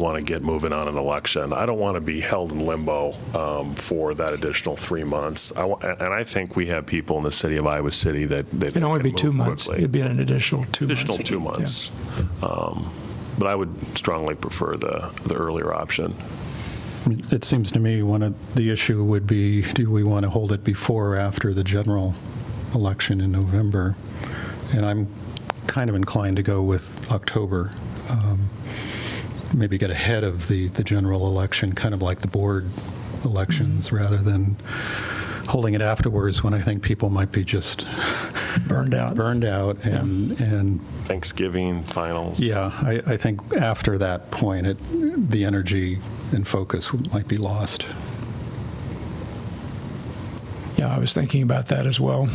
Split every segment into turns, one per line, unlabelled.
want to get moving on an election. I don't want to be held in limbo um, for that additional three months. I wa- And I think we have people in the city of Iowa City that. that
It'd only
can
be
move
two months.
quickly.
It'd be an additional two months.
Additional two months. Um, But I would strongly prefer the, the earlier option.
It seems to me one of the issue would be, do we want to hold it before or after the general election in November? And I'm kind of inclined to go with October. um, Maybe get ahead of the, the general election, kind of like the board elections, rather than holding it afterwards when I think people might be just
Yeah, Burned out.
burned out and, and
Thanksgiving, finals.
yeah, I, I think after that point, it, the energy and focus might be lost.
Yeah, I was thinking about that as well.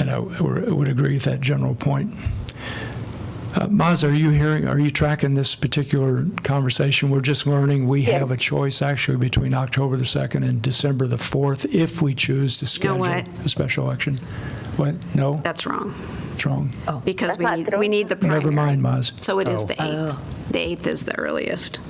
And I w- would agree with that general point. Uh, Maz, are you hearing, are you tracking this particular conversation? We're just learning we
Yes.
have a choice actually between October the 2nd and December the 4th if we choose to
know
schedule
what?
a special election. What? No?
That's wrong,
That's wrong.
because we
not
need,
true.
we need the primary.
Never mind, Maz.
So it is the 8th. The 8th is the earliest.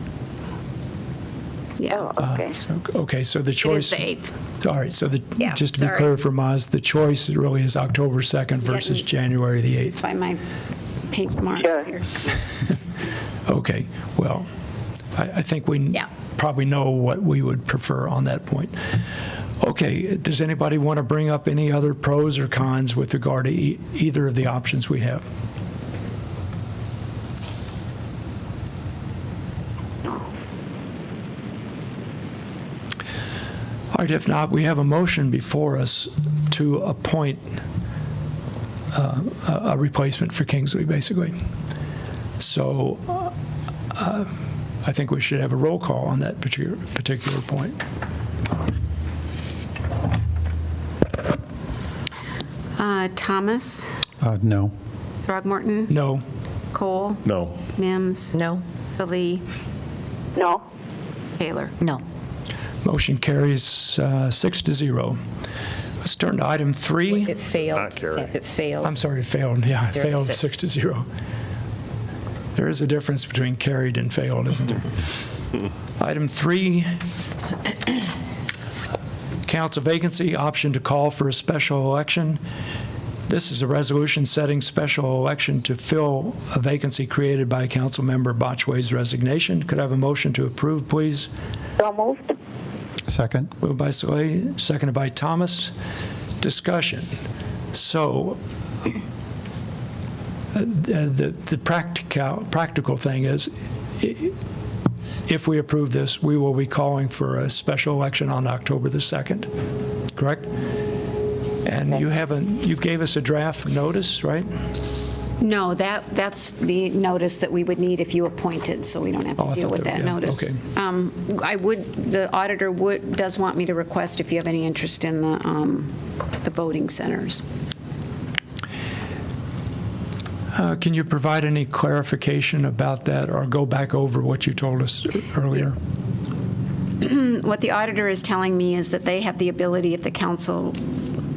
Yeah,
Oh, okay.
So- Okay, so the
it is
choice.
the 8th.
All right, so the,
Yeah,
just to be
sorry.
clear for Maz, the choice really is October 2nd versus
me-
January the 8th.
It's by my pink marks
Sure.
here.
Okay, well, I, I think we
Yeah.
probably know what we would prefer on that point. Okay, does anybody want to bring up any other pros or cons with regard to e- either of the options we have? All right, if not, we have a motion before us to appoint uh, a a replacement for Kingsley, basically. So uh, I think we should have a roll call on that particular, particular point.
Uh, Thomas,
Uh, no.
Throgmorton,
No,
Cole,
No,
Mims,
No,
Salee,
No,
Taylor.
no.
motion carries uh, six to zero. Let's turn to item three.
It failed.
Not carried.
It failed.
I'm sorry, it failed, yeah, it
Zero to
failed
six.
six to zero. There is a difference between carried and failed, isn't there? Item three, council vacancy, option to call for a special election. This is a resolution setting special election to fill a vacancy created by Councilmember Botchway's resignation. Could I have a motion to approve, please?
so moved.
Second?
Moved by Salehe, seconded by Thomas. Discussion. So uh, the the practical, practical thing is, i- if we approve this, we will be calling for a special election on October the 2nd, correct? And you haven't, you gave us a draft notice, right?
No, that, that's the notice that we would need if you appointed, so we don't have
Oh, I
to deal
thought
with
that-
that
yeah,
notice.
okay.
Um, I would, the auditor would, does want me to request if you have any interest in the, um, the voting centers.
Uh, Can you provide any clarification about that, or go back over what you told us earlier?
What the auditor is telling me is that they have the ability, if the council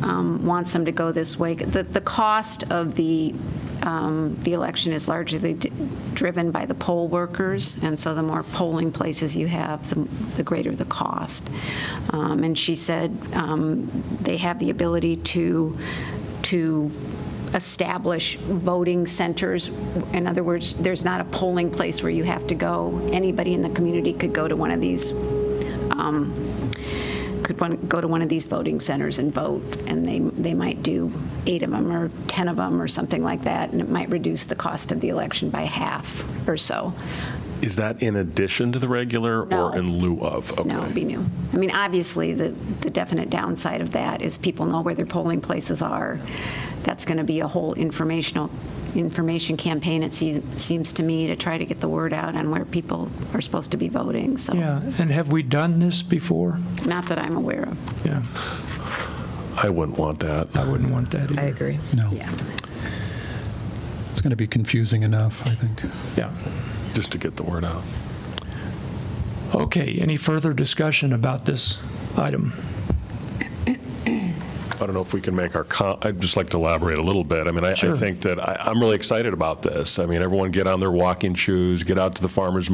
um, wants them to go this way, the, the cost of the, um, the election is largely d- driven by the poll workers, and so the more polling places you have, the the greater the cost. Um, And she said um, they have the ability to, to establish voting centers. In other words, there's not a polling place where you have to go. Anybody in the community could go to one of these um, could one, go to one of these voting centers and vote, and they, they might do eight of them or 10 of them or something like that, and it might reduce the cost of the election by half or so.
is that in addition to the regular
No.
or in lieu of? Okay.
No, it'd be new. I mean, obviously, the, the definite downside of that is people know where their polling places are. That's going to be a whole informational, information campaign, it se- seems to me, to try to get the word out on where people are supposed to be voting, so,
Yeah, and have we done this before?
not that I'm aware of.
Yeah,
I wouldn't want that.
I wouldn't want that either.
I agree.
No.
Yeah.
It's going to be confusing enough, I think.
Yeah.
just to get the word out.
Okay, any further discussion about this item?
I don't know if we can make our, com- I'd just like to elaborate a little bit. I mean, I I think that, I- I'm really excited about this. I mean, everyone get on their walking shoes, get out to the farmer's